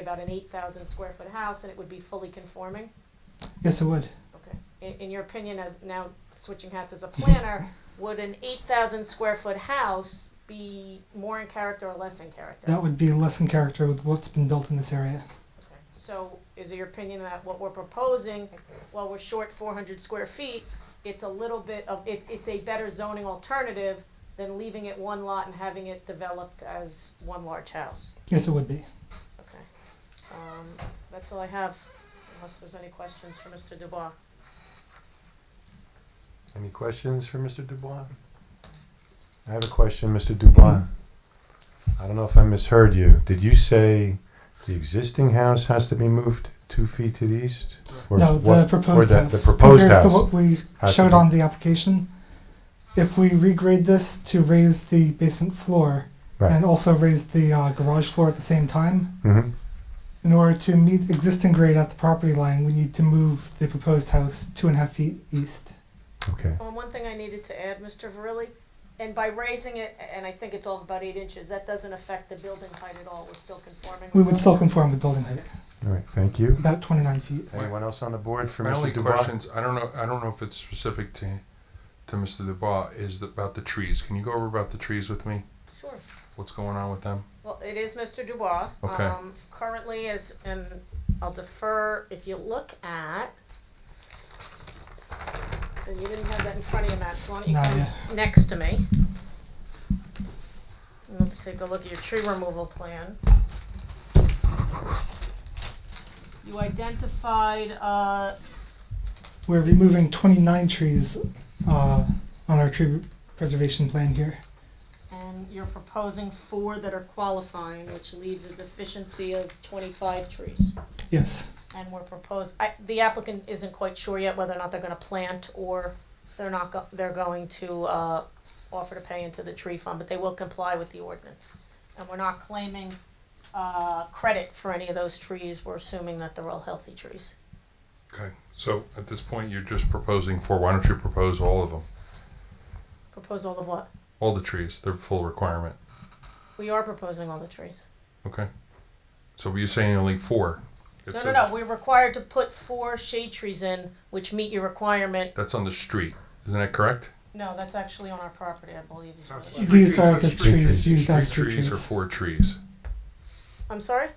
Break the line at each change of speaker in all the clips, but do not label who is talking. about an eight thousand square foot house and it would be fully conforming?
Yes, it would.
Okay. In, in your opinion, as now switching hats as a planner, would an eight thousand square foot house be more in character or less in character?
That would be less in character with what's been built in this area.
Okay. So is it your opinion that what we're proposing, while we're short four hundred square feet, it's a little bit of, it, it's a better zoning alternative than leaving it one lot and having it developed as one large house?
Yes, it would be.
Okay. Um, that's all I have, unless there's any questions for Mr. Dubois.
Any questions for Mr. Dubois? I have a question, Mr. Dubois. I don't know if I misheard you. Did you say the existing house has to be moved two feet to the east? Or
No,
what-
the proposed
or the-
house.
The proposed
compares to
house.
what we
has to
showed
be-
on the application. If we regrade this to raise the basement floor
Right.
and also raise the uh, garage floor at the same time,
Mhm.
in order to meet existing grade at the property line, we need to move the proposed house two and a half feet east.
Okay,
Um, one thing I needed to add, Mr. Verrilli, and by raising it, and I think it's all about eight inches, that doesn't affect the building height at all, we're still conforming.
We would still conform with building height,
all right, thank you.
about 29 feet.
Anyone else on the board for
My only
Mr. Dubois?
questions, I don't know, I don't know if it's specific to, to Mr. Dubois, is about the trees. Can you go over about the trees with me?
Sure.
What's going on with them?
Well, it is Mr. Dubois.
Okay.
Um, currently is, and I'll defer, if you look at, and you didn't have that in front of you, Matt, so why don't you
No,
come
yeah.
s- next to me? And Let's take a look at your tree removal plan. You identified, uh,
We're removing 29 trees uh, on our tree preservation plan here.
and you're proposing four that are qualifying, which leaves a deficiency of twenty-five trees.
Yes.
and we're propose, I, the applicant isn't quite sure yet whether or not they're gonna plant or they're not go, they're going to, uh, offer to pay into the tree fund, but they will comply with the ordinance. And we're not claiming, uh, credit for any of those trees, we're assuming that they're all healthy trees.
Okay, so at this point, you're just proposing four, why don't you propose all of them?
Propose all of what?
All the trees, they're full requirement,
We are proposing all the trees.
okay? So were you saying only four? It
No, no,
says-
no, we're required to put four shade trees in, which meet your requirement.
That's on the street, isn't that correct?
No, that's actually on our property, I believe is what it was.
These are the
Street
trees
trees.
used as
Street
street
trees or
trees.
four trees?
I'm sorry?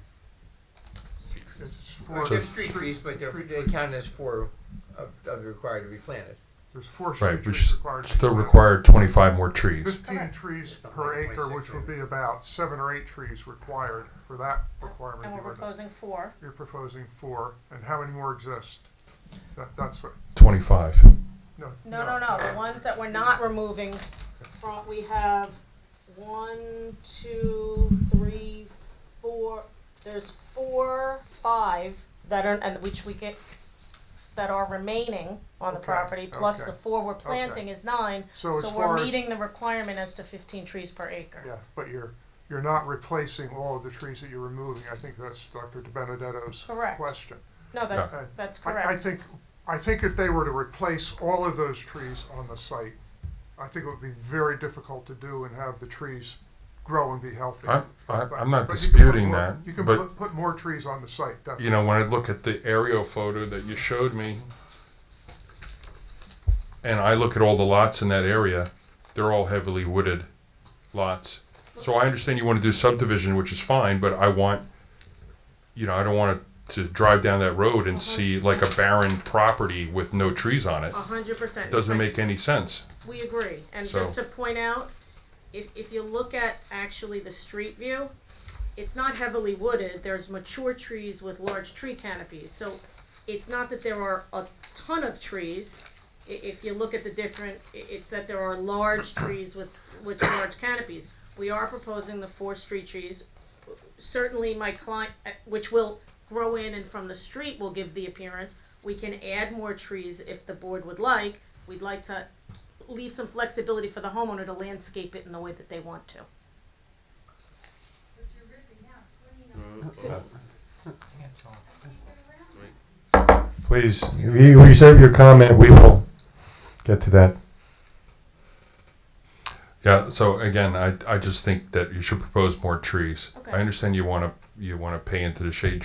Four,
So-
they're street trees, but they're, they count as four of, of required to be planted.
There's four
Right,
street
which
trees required. to be
still
planted.
require twenty-five more trees.
Fifteen trees per acre, which would be about seven or eight trees required for that requirement.
And
of
we're
the ordinance.
proposing four.
You're proposing four, and how many more exist? That, that's what,
Twenty-five.
no.
No, no, no, the ones that we're not removing from, we have one, two, three, four, there's four, five that are, and which we get, that are remaining on the
Okay,
property, plus the
okay,
four we're planting is nine,
So as
so we're
far as-
meeting the requirement as to fifteen trees per acre.
Yeah, but you're, you're not replacing all of the trees that you're removing. I think that's Dr. De Benedetto's
Correct.
question.
No, that's,
Yeah.
that's correct.
I, I think, I think if they were to replace all of those trees on the site, I think it would be very difficult to do and have the trees grow and be healthy.
I'm, I-
But-
I'm not
but you can put
disputing
more-
that,
You can
but,
put, put more trees on the site,
you
definitely.
know, when I look at the aerial photo that you showed me, and I look at all the lots in that area, they're all heavily wooded lots. So I understand you wanna do subdivision, which is fine, but I want, you know, I don't want to drive down that road and see like a barren property with no trees on it.
A hundred percent.
Doesn't make any sense.
We agree, and
So-
just to point out, if, if you look at actually the street view, it's not heavily wooded, there's mature trees with large tree canopies, so it's not that there are a ton of trees. I- if you look at the different, i- it's that there are large trees with, with large canopies. We are proposing the four street trees, certainly my client, uh, which will grow in and from the street will give the appearance. We can add more trees if the board would like, we'd like to leave some flexibility for the homeowner to landscape it in the way that they want to.
But you're ripping out twenty-nine.
Please, re- reserve your comment, we will get to that.
Yeah, so again, I, I just think that you should propose more trees.
Okay.
I understand you wanna, you wanna pay into the shade